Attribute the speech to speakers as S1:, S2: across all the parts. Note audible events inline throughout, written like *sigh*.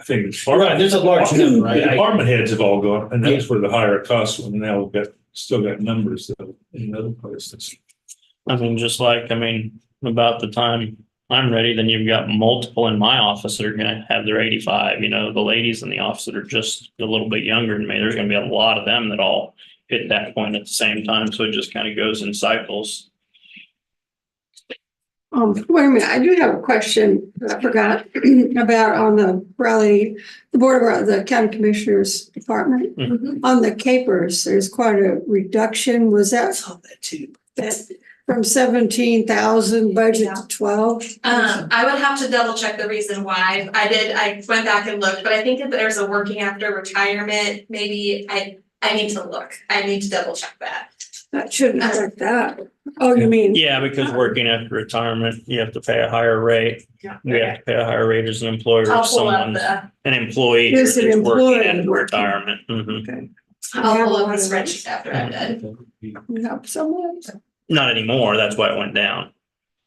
S1: I think it's.
S2: Right, there's a large number, right?
S1: The
S2: I-
S1: Department heads have all gone, and that's where the higher costs, and now we've got, still got numbers though in other places.
S3: I mean, just like, I mean, about the time I'm ready, then you've got multiple in my office that are gonna have their eighty-five, you know, the ladies in the office that are just a little bit younger than me, there's gonna be a lot of them that all hit that point at the same time, so it just kind of goes in cycles.
S4: Um, wait a minute, I do have a question that I forgot *clears throat* about on the Raleigh, the Board of, the County Commissioners Department. On the capers, there's quite a reduction. Was that
S5: saw that too.
S4: that from seventeen thousand budget
S6: Yeah.
S4: to twelve?
S6: Um, I would have to double check the reason why. I did, I went back and looked, but I think that there's a working after retirement, maybe I, I need to look. I need to double check that.
S4: That shouldn't affect that. Oh, you mean,
S3: Yeah, because working after retirement, you have to pay a higher rate.
S6: Yeah.
S3: You have to pay a higher rate as an employer,
S6: I'll
S3: or
S6: pull up
S3: someone,
S6: the,
S3: an employee.
S4: Is
S3: who's
S4: an
S3: just working
S4: employee
S3: after
S4: working?
S3: Retirement. Mhm.
S6: I'll pull up the
S4: Yeah.
S6: spreadsheet after I'm done.
S4: we have someone?
S3: Not anymore, that's why it went down.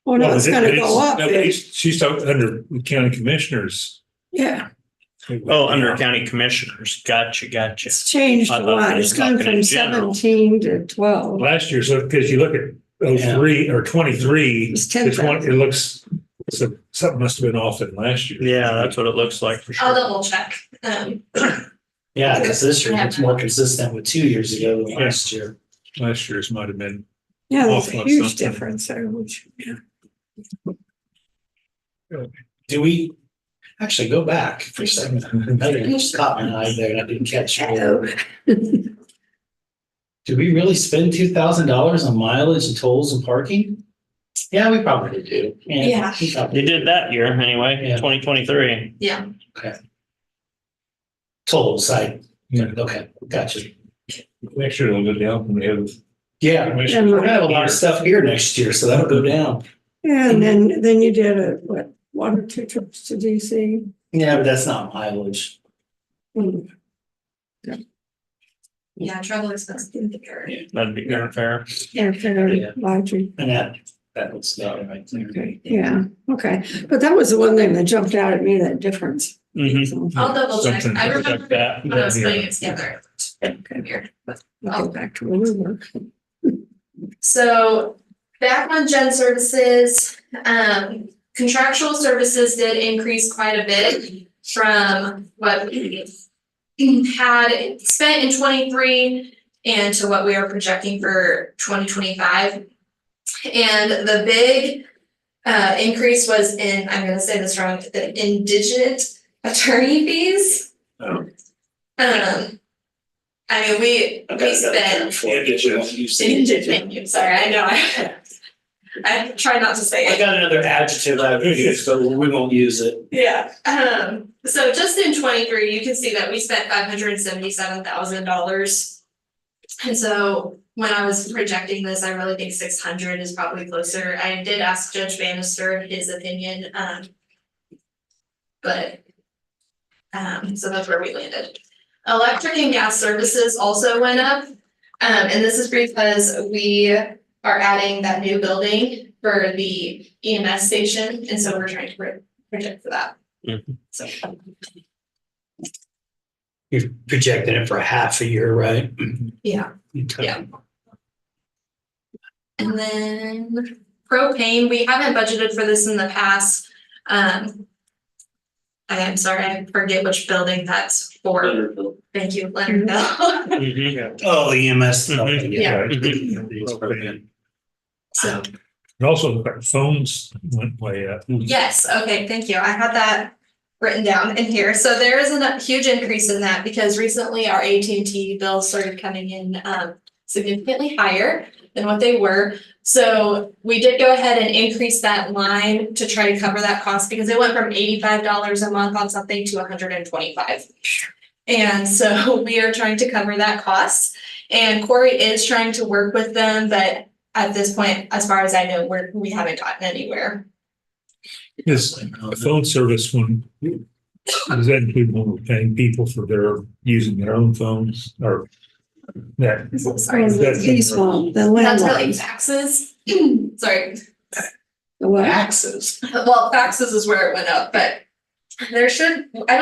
S4: Well, no, it's gonna go up.
S1: No,
S4: then.
S1: it's- She's talking under the county commissioners.
S4: Yeah,
S3: Oh, under county commissioners, gotcha, gotcha.
S4: it's changed
S3: I
S4: a
S3: thought
S4: lot.
S3: it
S4: It's
S3: was
S4: gone
S3: talking in
S4: from
S3: general.
S4: seventeen to twelve.
S1: Last year, so, because you look at oh three or twenty-three,
S4: It's ten
S1: it's one,
S4: thousand.
S1: it looks, so something must have been off in last year.
S3: Yeah, that's what it looks like for sure.
S6: I'll double check. Um,
S2: Yeah, because this year it's more consistent with two years ago than last year.
S1: Last year's might have been,
S4: Yeah, there's
S1: Awful,
S4: a
S1: it's
S4: huge
S1: something.
S4: difference there, which, yeah.
S2: Do we actually go back for a second? I didn't just caught my eye there and I didn't catch it.
S4: *laughs*
S2: Do we really spend two thousand dollars on mileage and tolls and parking? Yeah, we probably do.
S6: Yeah.
S2: we probably
S3: They did that year anyway,
S2: Yeah.
S3: twenty twenty-three.
S6: yeah,
S2: Tolls, I,
S1: you know,
S2: okay, gotcha.
S1: make sure it'll go down when we have.
S2: Yeah, we're gonna have a lot of stuff here next year, so that'll go down.
S4: Yeah, and then, then you did a, what, one or two trips to DC?
S2: Yeah, but that's not mileage.
S4: Hmm,
S6: yeah, travel expenses.
S3: That'd be kind of fair.
S4: Yeah,
S2: Yeah.
S4: fair, lodging.
S2: And that, that looks about right there.
S4: Okay, yeah, okay. But that was the one thing that jumped out at me, that difference.
S3: Mhm.
S4: So,
S6: I'll double check.
S1: Something
S6: I
S1: like
S6: remember
S3: that.
S6: when I was
S1: Yeah.
S6: putting it together.
S4: Okay,
S6: Here.
S4: I'll go back to where we were.
S6: So back on gen services, um, contractual services did increase quite a bit from what we had spent in twenty-three and to what we are projecting for twenty twenty-five. And the big uh, increase was in, I'm gonna say this wrong, the indigent attorney fees.
S1: Oh.
S6: Um, I mean, we, we spent Thank you, sorry, I know, *laughs* I, I try not to say
S2: I
S6: it,
S2: got another adjective I would use, but we won't use it.
S6: yeah, um, so just in twenty-three, you can see that we spent five hundred and seventy-seven thousand dollars. And so when I was projecting this, I really think six hundred is probably closer, I did ask Judge Bannister his opinion, um. But. Um, so that's where we landed. Electric and gas services also went up, um, and this is because we are adding that new building for the EMS station, and so we're trying to pro- project for that.
S3: Mhm.
S6: So,
S2: You're projecting it for a half a year, right?
S6: yeah, Yeah. and then propane, we haven't budgeted for this in the past, um. I am sorry, I forget which building that's for, thank you, Leonardville,
S3: Mhm.
S2: Oh, the EMS. stuff,
S3: Mhm.
S6: Yeah.
S1: Mm-hmm. And
S6: so.
S1: also phones went uh, way up.
S6: Yes, okay, thank you. I had that written down in here. So there is a huge increase in that because recently our AT&T bills started coming in um significantly higher than what they were. So we did go ahead and increase that line to try to cover that cost because it went from eighty-five dollars a month on something to hundred and twenty-five. And so *laughs* we are trying to cover that cost and Corey is trying to work with them, but at this point, as far as I know, we're, we haven't gotten anywhere.
S1: Is a phone service one, does that include when we're paying people for their, using their own phones or that?
S4: Sorry, the
S1: That's-
S4: lease one, the
S6: That's really
S4: landlines,
S6: taxes, *clears throat* sorry,
S4: the what?
S2: Taxes.
S6: well, taxes is where it went up, but there should, I don't